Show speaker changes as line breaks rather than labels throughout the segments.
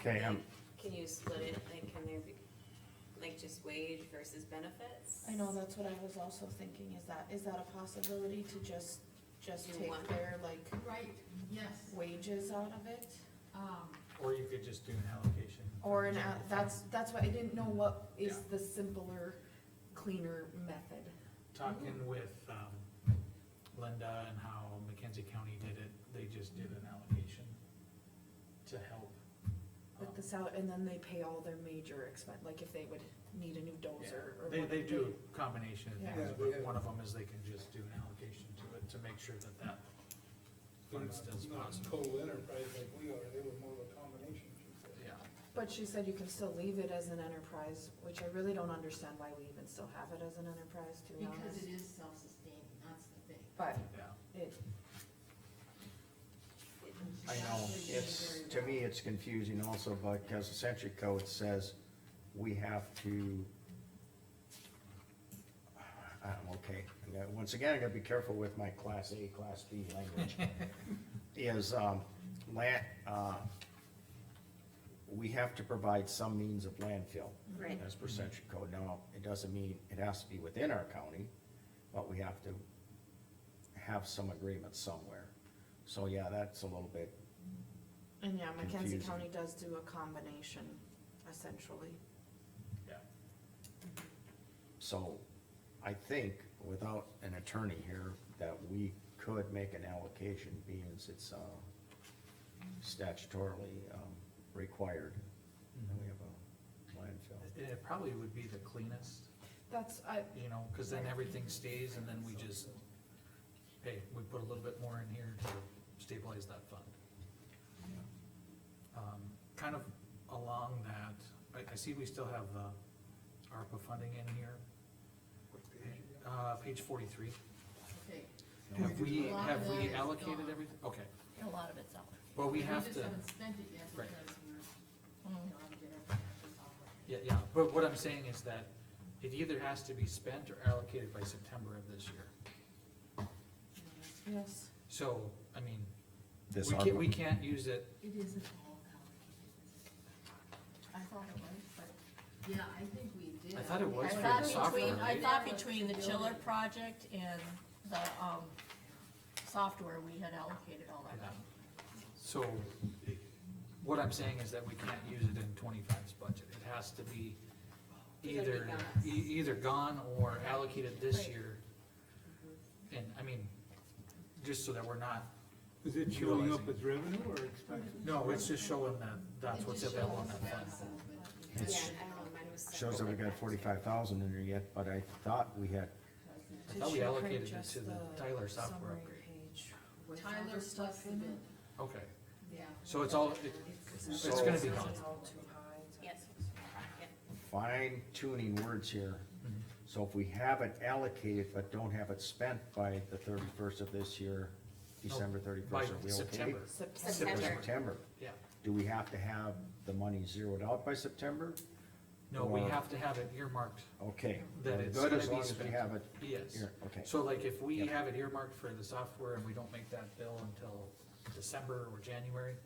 Okay, um,
Can you split it, like, can there be, like, just wage versus benefits?
I know, that's what I was also thinking, is that, is that a possibility to just, just
Do
take
one.
their like
Right, yes,
wages out of it?
um,
Or you could just do an allocation.
Or an, out- that's, that's why I didn't know what is the
Yeah.
simpler, cleaner method. Mhm.
Talking with, um, Linda and how McKenzie County did it, they just did an allocation to help. um,
With
Oh.
the sal, and then they pay all their major expense, like if they would need a new
Yeah,
dozer or
They,
whatever.
they do a combination of
Yeah.
things, but one of them is they can just do an allocation to it to make sure that that fund still
Not
possible.
total enterprise like we are, they were more of a combination. she said.
Yeah,
But she said you can still leave it as an enterprise, which I really don't understand why we even still have it as an enterprise, to be
because
honest.
it is self-sustaining, that's the thing.
But
yeah.
it,
I know, it's, to me, it's confusing also, because the century code says we have to. uh, I'm okay, I got- once again, I gotta be careful with my class A, class B language, is, um, land, uh, we have to provide some means of landfill.
Right.
As
Mm-hmm.
per century code, now, it doesn't mean it has to be within our county, but we have to have some agreement somewhere. So, yeah, that's a little bit
and yeah, Mackenzie
Confusing.
County does do a combination, essentially.
So I think without an attorney here, that we could make an allocation being as it's uh, statutorily um, required. And we have a landfill.
It- It probably would be the cleanest,
That's, I,
you know, cause then everything stays and then we just, hey, we put a little bit more in here to stabilize that fund. Um, kind of along that, I, I see we still have the ARPA funding in here,
What page you got?
uh, page forty-three.
Okay,
Have we,
A lot
have
of that
we
is
allocated
gone.
everything? Okay,
A lot of it's out.
well, we have
just
to,
haven't spent it yet
Right.
because we're,
Mm.
you know, I'm getting everything off of it.
yeah, yeah, but what I'm saying is that it either has to be spent or allocated by September of this year.
You know, that's-
yes,
So, I mean,
This
we can't,
ARPA.
we can't use it
It isn't all allocated.
I thought it was, but.
Yeah, I think we did.
I thought it was
I
for
thought
the
between-
software,
I
right?
thought between the chiller project and the, um, software, we had allocated all that.
Yeah. So, it- what I'm saying is that we can't use it in 25's budget, it has to be
Either
either,
be
e-
gone.
either gone or allocated this
Right.
year. And, I mean, just so that we're not,
Is it showing up
Utilizing.
as revenue or expenses?
no, it's just showing that that's
It
what's
just
available in
shows
that
us
fund.
that, but
Yeah,
because
It's-
I don't know, mine was
Shows that we
separate.
got forty-five thousand in there yet, but I thought we had,
I
Did
thought we
she print
allocated it
just
to the
the
Tyler software
summary
upgrade.
page with all
Tyler
the
plus
stuff
the
in it.
bid,
Okay,
yeah.
so it's all, it-
it's gonna be
gone.
It's all too high. it's-
Yes, yeah.
fine tuning words here. So if we have it allocated but don't have it spent by the thirty-first of this year, December
by
thirty-first, are we okay?
September,
September,
By
September.
September.
yeah.
Do we have to have the money zeroed out by September?
No, we
Or-
have to have it earmarked,
Okay.
That
we're
it's
Good
gonna
as
be
long as we
spent.
have it
yes.
here, okay.
So like if we
Yeah.
have it earmarked for the software and we don't make that bill until December or January,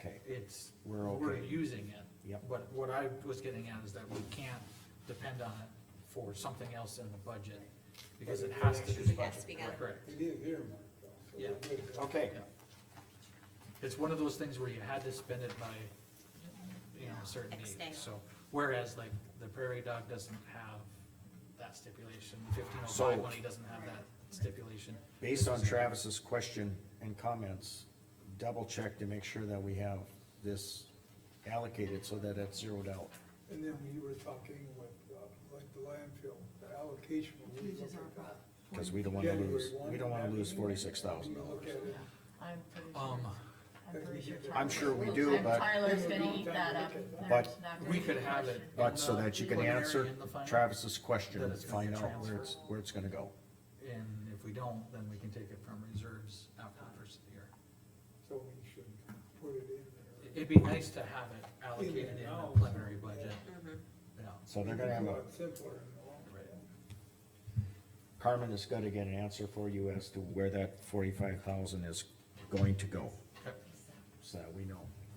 Okay,
it's,
We're
we're
okay.
using it.
Yep.
But what I was getting at is that we can't depend on it for something else in the budget, because it has to be.
It has to be done.
Correct.
It is earmarked though. so
Yeah.
we're good.
okay,
Yeah. It's one of those things where you had to spend it by, you know, a certain
X
date,
day.
so, whereas like the prairie dog doesn't have that stipulation, fifteen oh
So-
five money doesn't have that stipulation.
based on Travis's question and comments, double check to make sure that we have this allocated so that it's zeroed out.
And then we were talking with, uh, like the landfill, the allocation. when we
Which is
look
our
at that.
Cause we don't wanna
January
lose,
one,
we don't wanna
that-
lose forty-six thousand
when you look
dollars.
at it,
I'm pretty sure,
Um,
I'm pretty sure.
I'm sure we
Tyler-
do, but-
Tyler's gonna eat that up.
But-
There's not gonna
we
be
could
a
have it.
question.
in
But so
the
that you can
preliminary
answer
and the final.
Travis's question,
That
and
it's
find
gonna
out where
transfer.
it's, where it's gonna go.
And if we don't, then we can take it from reserves after the first of the year.
So we should put it in there.
It'd be nice to have it allocated in the preliminary budget,
Mm-hmm.
Mhm.
you know.
So they're gonna have,
Do
a
it Simpler in the long
Right.
run.
Carmen is gonna get an answer for you as to where that forty-five thousand is going to go,
Okay.
so that we know.